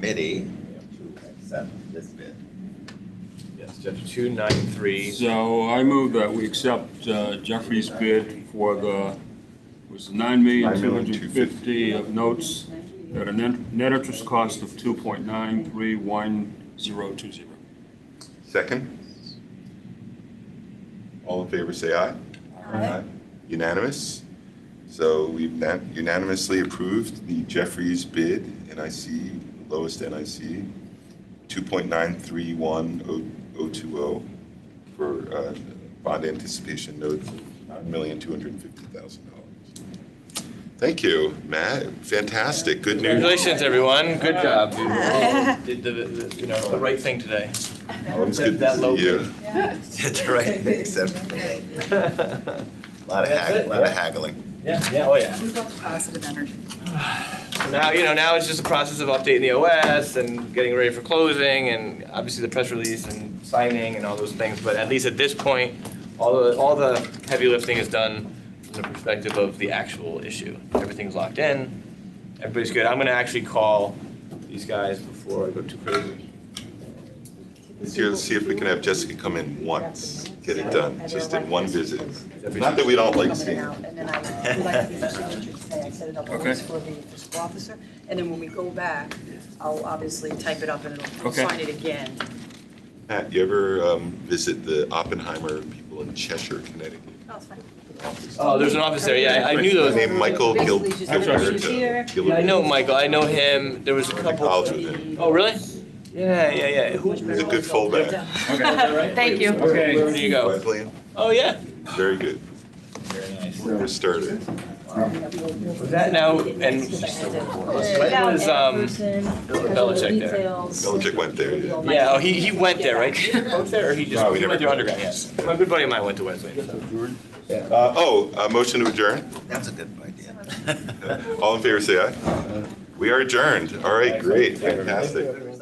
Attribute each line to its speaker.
Speaker 1: committee to accept this bid.
Speaker 2: Yes, Jeff, two nine three.
Speaker 3: So I move that we accept uh, Jeffrey's bid for the, was nine million, two hundred and fifty of notes at a net, net interest cost of two point nine three one zero two zero.
Speaker 4: Second? All in favor, say aye. Aye. Unanimous? So we've na- unanimously approved the Jeffries bid, NIC, lowest NIC, 2.931020 for uh, bond anticipation note, $9,250,000. Thank you, Matt. Fantastic. Good news.
Speaker 2: Congratulations, everyone. Good job. You all Did the, the- you know, the right thing today.
Speaker 4: Always good
Speaker 2: That
Speaker 4: to
Speaker 2: low
Speaker 4: see you.
Speaker 1: Did the right thing, except
Speaker 2: Yeah,
Speaker 1: a lot of
Speaker 2: That's
Speaker 1: haggling,
Speaker 2: it,
Speaker 1: a lot of
Speaker 2: yeah.
Speaker 1: haggling.
Speaker 2: yeah, oh, yeah.
Speaker 5: We've got the positive energy.
Speaker 2: So Now, you know, now it's just a process of updating the OS and getting ready for closing and obviously the press release and signing and all those things. But at least at this point, all the, all the heavy lifting is done from the perspective of the actual issue. Everything's locked in, everybody's good. I'm gonna actually call these guys before I go too crazy.
Speaker 4: Let's hear- see if we can have Jessica come in once, get it done, just in one visit.
Speaker 2: Jeffrey,
Speaker 4: Not that we don't like
Speaker 5: Coming
Speaker 4: seeing
Speaker 5: out, And then I would like to do the signatures today. I set it up
Speaker 3: Okay.
Speaker 5: always for the fiscal officer. And then when we go back, I'll obviously type it up and it'll we'll
Speaker 3: Okay.
Speaker 5: sign it again.
Speaker 4: Pat, you ever um, visit the Oppenheimer people in Cheshire, Connecticut?
Speaker 5: No, it's fine.
Speaker 2: Oh, there's an office there, yeah, I I knew
Speaker 4: Right.
Speaker 2: those.
Speaker 4: Named Michael Gil-
Speaker 5: Basically, she's here.
Speaker 4: Gilberto.
Speaker 2: Yeah, I know
Speaker 4: Gilberto.
Speaker 2: Michael, I know him, there was a
Speaker 4: I went to
Speaker 2: couple.
Speaker 4: college with him.
Speaker 2: Oh, really? Yeah, yeah, yeah. Who,
Speaker 4: He's a good fullback.
Speaker 5: Thank you.
Speaker 2: where do you go?
Speaker 4: Wesleyan,
Speaker 2: Oh, yeah.
Speaker 4: very good. For starter.
Speaker 2: Was that now, and Clinton was, um, Belichick there.
Speaker 4: Belichick went there, yeah.
Speaker 2: yeah, oh, he, he went there, right? Did he coach there, or he just,
Speaker 4: No, we
Speaker 2: he went
Speaker 4: never-
Speaker 2: there undergrad, yes. My good buddy of mine went to Wesleyan, so.
Speaker 4: Uh, Oh, uh, motion to adjourn?
Speaker 1: That's a good idea.
Speaker 4: All in favor, say aye. We are adjourned. All right, great, fantastic.